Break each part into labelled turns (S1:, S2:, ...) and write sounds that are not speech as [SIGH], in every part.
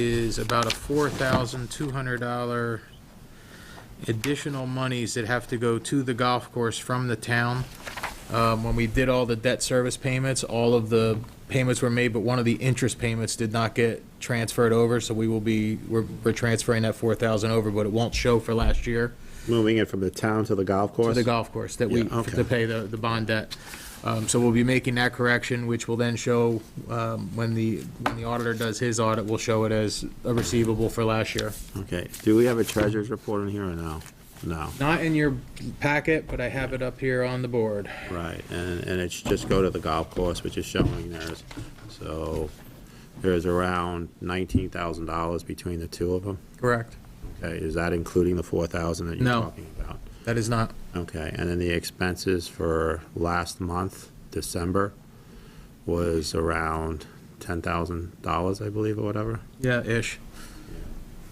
S1: is about a four thousand two hundred dollar additional monies that have to go to the golf course from the town. Um, when we did all the debt service payments, all of the payments were made, but one of the interest payments did not get transferred over, so we will be, we're, we're transferring that four thousand over, but it won't show for last year
S2: Moving it from the town to the golf course?
S1: to the golf course that we,
S2: Yeah, okay.
S1: to pay the, the bond debt. Um, so we'll be making that correction, which will then show, um, when the, when the auditor does his audit, we'll show it as a receivable for last year.
S2: Okay, do we have a treasurer's report in here or no? No,
S1: Not in your packet, but I have it up here on the board.
S2: right, and, and it's just go to the golf course, which is showing theirs. So there's around nineteen thousand dollars between the two of them.
S1: Correct.
S2: Okay, is that including the four thousand that you're
S1: No.
S2: talking about?
S1: That is not,
S2: Okay, and then the expenses for last month, December, was around ten thousand dollars, I believe, or whatever?
S1: yeah, ish.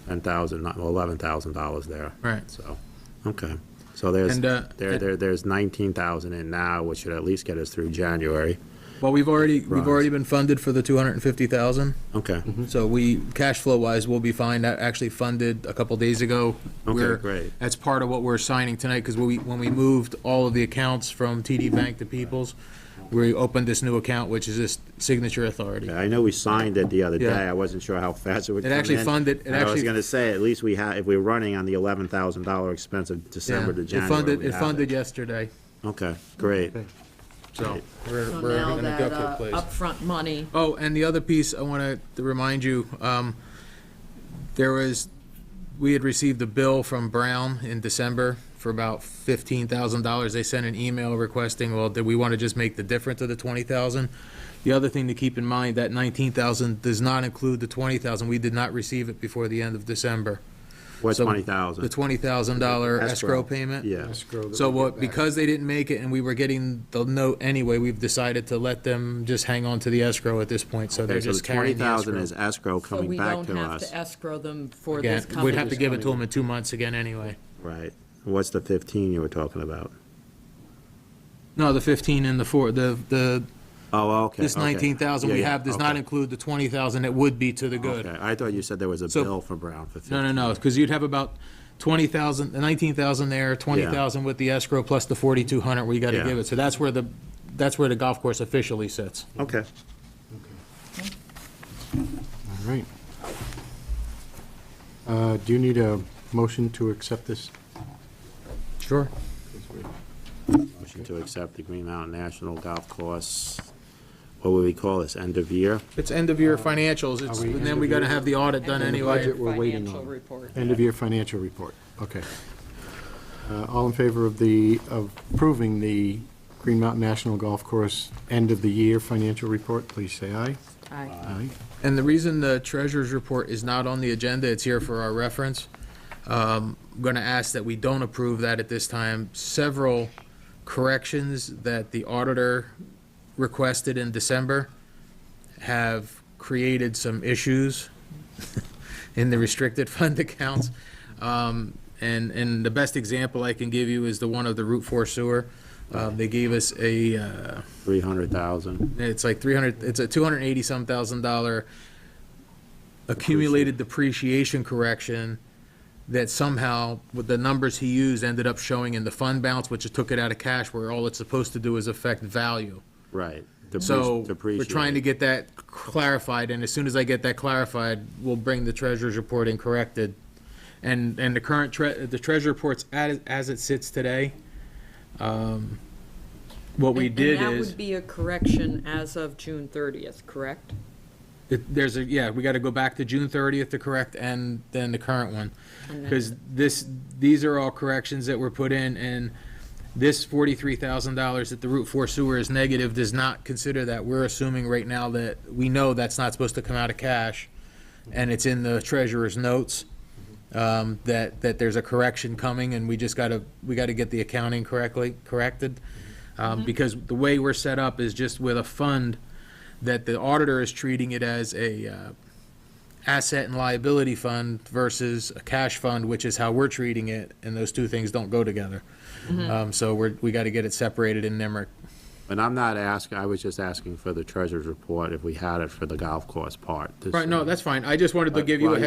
S2: ten thousand, not eleven thousand dollars there.
S1: Right.
S2: So, okay, so there's,
S1: And, uh,
S2: there, there, there's nineteen thousand in now, which should at least get us through January.
S1: Well, we've already, we've
S2: Right.
S1: already been funded for the two hundred and fifty thousand,
S2: Okay,
S1: so we, cash flow wise, we'll be fine. That actually funded a couple days ago.
S2: Okay,
S1: We're-
S2: great.
S1: That's part of what we're signing tonight, because we, when we moved all of the accounts from TD Bank to Peoples, we opened this new account, which is this signature authority.
S2: I know we signed it the other day,
S1: Yeah.
S2: I wasn't sure how fast it would
S1: It
S2: come in.
S1: actually funded- it
S2: And I was
S1: actually-
S2: gonna say, at least we had, if we we're running on the eleven thousand dollar expense of December to
S1: Yeah. It
S2: January.
S1: funded,
S2: we
S1: it
S2: have
S1: funded yesterday,
S2: Okay, great,
S1: so we're,
S3: So
S1: we're
S3: now
S1: in a
S3: that
S1: good place.
S3: uh, upfront money,
S1: Oh, and the other piece I want to remind you, um, there was, we had received a bill from Brown in December for about fifteen thousand dollars. They sent an email requesting, well, did we want to just make the difference of the twenty thousand? The other thing to keep in mind, that nineteen thousand does not include the twenty thousand. We did not receive it before the end of December.
S2: what's
S1: So
S2: twenty
S1: The
S2: thousand?
S1: twenty thousand dollar escrow payment?
S2: Yeah,
S1: So what, because they didn't make it and we were getting the note anyway, we've decided to let them just hang on to the escrow at this point, so they're
S2: okay, so the
S1: just
S2: twenty
S1: carrying the
S2: thousand
S1: escrow.
S2: is escrow
S3: so
S2: coming
S3: we
S2: back
S3: don't
S2: to
S3: have
S2: us,
S3: to escrow them for
S1: Again,
S3: this
S1: we'd
S3: coming.
S1: have to give it to them in two months again anyway.
S2: right? What's the fifteen you were talking about?
S1: No, the fifteen and the four, the, the,
S2: Oh, okay.
S1: this
S2: okay.
S1: nineteen thousand
S2: Yeah,
S1: we
S2: yeah,
S1: have does not
S2: okay.
S1: include the twenty thousand that would be to the good.
S2: Okay, I thought you said there was a
S1: So-
S2: bill for Brown for 15.
S1: No, no, no, because you'd have about twenty thousand, nineteen thousand there, twenty thousand with the escrow plus the forty-two hundred we gotta
S2: Yeah.
S1: give it. So that's where the, that's where the golf course officially sits.
S2: Okay.
S4: All right. Uh, Do you need a motion to accept this?
S1: Sure.
S2: Motion to accept the Green Mountain National Golf Course, what would we call this, end of year?
S1: It's end of year financials, it's,
S4: Are we
S1: and then
S4: end
S1: we
S4: of
S1: gotta
S4: year?
S1: have the audit done
S3: And the
S1: anyway.
S4: budget we're waiting
S3: Financial
S4: on.
S3: report.
S4: End-of-year financial report, okay. Uh, All in favor of the, of approving the Green Mountain National Golf Course end-of-the-year financial report, please say aye.
S3: Aye.
S4: Aye.
S1: And the reason the treasurer's report is not on the agenda, it's here for our reference. Um, I'm going to ask that we don't approve that at this time. Several corrections that the auditor requested in December have created some issues [LAUGHS] in the restricted fund [LAUGHS] accounts. Um, And, and the best example I can give you is the one of the Route 4 sewer. Uh, They gave us a, uh,
S2: 300,000.
S1: it's like three hundred, it's a two hundred and eighty-some thousand dollar accumulated depreciation correction that somehow, with the numbers he used, ended up showing in the fund balance, which took it out of cash, where all it's supposed to do is affect value.
S2: Right. Depreci-
S1: So, we're
S2: depreciate.
S1: trying to get that clarified, and as soon as I get that clarified, we'll bring the treasurer's report in corrected. And, and the current tre, the treasurer report's as, as it sits today, um, what we
S3: And-
S1: did is.
S3: And that would be a correction as of June 30th, correct?
S1: It, there's a, yeah, we gotta go back to June thirtieth to correct and then the current one.
S3: And then-
S1: Cause this, these are all corrections that were put in and this forty-three thousand dollars that the Route Four sewer is negative does not consider that. We're assuming right now that, we know that's not supposed to come out of cash and it's in the treasurer's notes, um, that, that there's a correction coming and we just gotta, we gotta get the accounting correctly, corrected. Um,
S3: Mm-hmm.
S1: because the way we're set up is just with a fund that the auditor is treating it as a uh, asset and liability fund versus a cash fund, which is how we're treating it, and those two things don't go together. Um, So we're, we got to get it separated in NIMRIC.
S2: And I'm not asking, I was just asking for the treasurer's report, if we had it for the golf course part. to
S1: Right, no,
S2: see.
S1: that's fine. I just wanted to give you a
S2: Well,